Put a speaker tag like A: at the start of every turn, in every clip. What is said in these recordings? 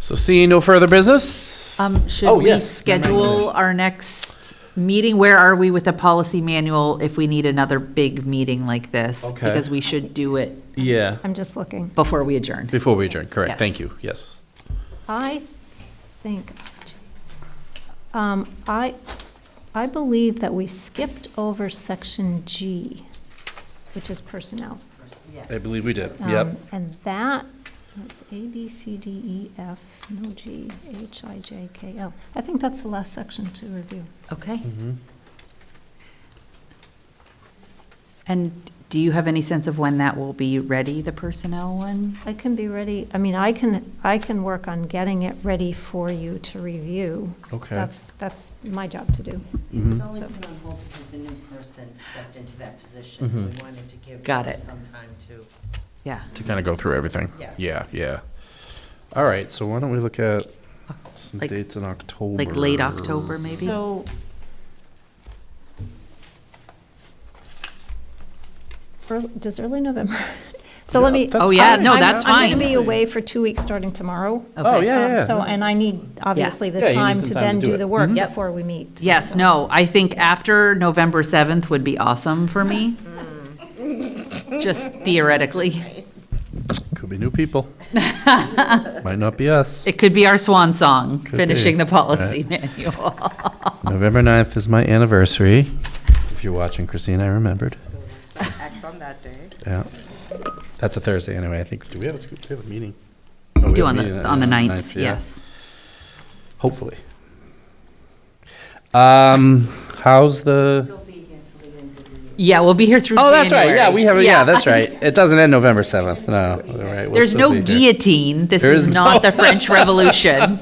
A: So seeing no further business,
B: Um, should
A: Oh,
B: we
A: yes.
B: schedule our next meeting? Where are we with the policy manual if we need another big meeting like this?
A: Okay.
B: Because we should do it
A: yeah,
C: I'm just looking.
B: before we adjourn.
A: before we adjourn, correct,
B: Yes.
A: thank you, yes.
C: I think, um, I, I believe that we skipped over section G, which is personnel.
A: I believe we did,
C: Um,
A: yep.
C: And that, that's A, B, C, D, E, F, no G, H, I, J, K, L. I think that's the last section to review.
B: Okay.
A: Mm-hmm.
B: And do you have any sense of when that will be ready, the personnel one?
C: I can be ready, I mean, I can, I can work on getting it ready for you to review.
A: Okay.
C: That's, that's my job to do.
D: It
B: Mm-hmm.
D: was only put on hold because a new person stepped into that position. and We wanted to give
B: Mm-hmm. Got
D: her
B: it.
D: some time to.
B: Yeah.
A: To kind of go through everything.
D: Yeah.
A: Yeah, yeah. All right, so why don't we look at some
B: Like-
A: dates in October?
B: Like late October, maybe?
C: So, early- does early November? So
A: Yeah,
C: let me.
A: that's
B: Oh, yeah,
C: I'm-
B: no,
C: I'm-
B: that's
C: I'm
B: fine.
C: going to be away for two weeks starting tomorrow.
A: Oh,
B: Okay.
A: yeah,
C: Um,
A: yeah.
C: So,
A: yeah.
C: and I need, obviously,
A: Yeah,
C: the
A: you need
C: time
A: some
C: to
A: time to
C: then
A: do
C: do
A: it. Mm-hmm.
C: the work
B: Mhm. Yep.
C: before we meet.
B: Yes,
C: So-
B: no, I think after November 7th would be awesome for me. Just theoretically.
A: Could be new people. Might not be us.
B: It could be our swan song,
A: Could
B: finishing
A: be. Oh,
B: the policy manual.
A: November 9th is my anniversary. If you're watching, Christine, I remembered.
D: Acts on that day.
A: Yeah. That's a Thursday anyway, I think. Do we have a, sc- do we have a meeting? No,
B: We
A: we
B: do
A: have a
B: on
A: meeting
B: the, on the
A: yeah,
B: ninth,
A: yeah.
B: yes.
A: Hopefully. Um, how's the?
D: She'll be here till the end of the year.
B: Yeah, we'll be here through
A: Oh, that's right.
B: January.
A: Yeah, we have. Yeah, that's right. It doesn't end November seventh. No. All right, we'll
B: There's
A: still
B: no
A: be here.
B: guillotine. This
A: There
B: is
A: is
B: not
A: no-
B: the French Revolution.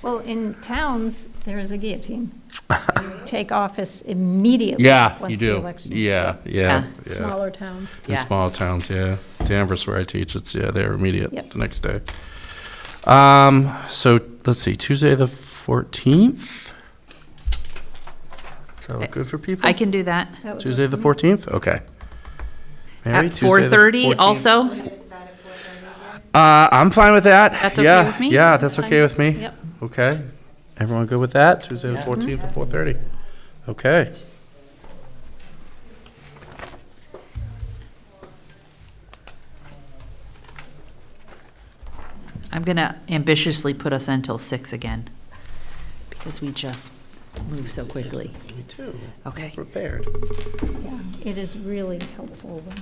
C: Well, in towns, there is a guillotine. You Take office immediately.
A: Yeah,
C: once
A: you
C: the
A: do.
C: election.
A: Yeah, yeah, yeah.
E: smaller towns.
A: In
B: Yeah.
A: small towns, yeah. Danvers, where I teach, it's yeah, they're immediate
C: Yep.
A: the next day. Um, so let's see, Tuesday the fourteenth. Is that look good for people?
B: I can do that.
C: That would
A: Tuesday
C: work.
A: the fourteenth. Okay. Mary,
B: At
A: Tuesday the 14th?
B: 4:30 also?
A: Uh, I'm fine with that.
B: That's okay
A: yeah,
B: with me?
A: Yeah, that's okay with me.
C: Yep.
A: Okay. Everyone good with that? Tuesday the fourteenth at four thirty. Okay.
B: I'm going to ambitiously put us until six again because we just move so quickly.
A: Me too.
B: Okay.
A: Prepared.
C: Yeah, It is really helpful when,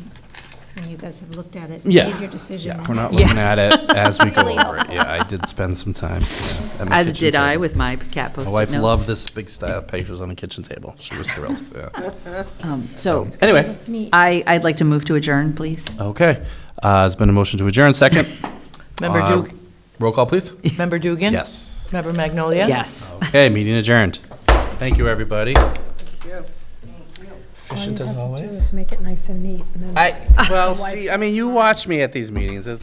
C: when you guys have looked at it.
A: Yeah.
C: Made your decision.
A: Yeah,
C: and-
A: we're not
B: Yeah.
A: looking at it as we go over it. Yeah, I did spend some time. yeah, at my
B: As
A: kitchen
B: did I
A: table.
B: with my cat post-it
A: My
B: notes.
A: wife loved this big stack of papers on the kitchen table. She was thrilled. Yeah. Oh,
B: Um, So
A: Anyway,
B: I, I'd like to move to adjourn, please.
A: okay. Uh, it's been a motion to adjourn. Second.
E: Member
A: Uh,
E: Duke,
A: Roll call, please.
E: member Dugan?
A: Yes.
E: Member Magnolia?
B: Yes.
A: Okay, meeting adjourned. Thank you, everybody. Thank you. Efficient as always.
F: Just make it nice and neat and then.
A: I, well, see, I mean, you watch me at these meetings. It's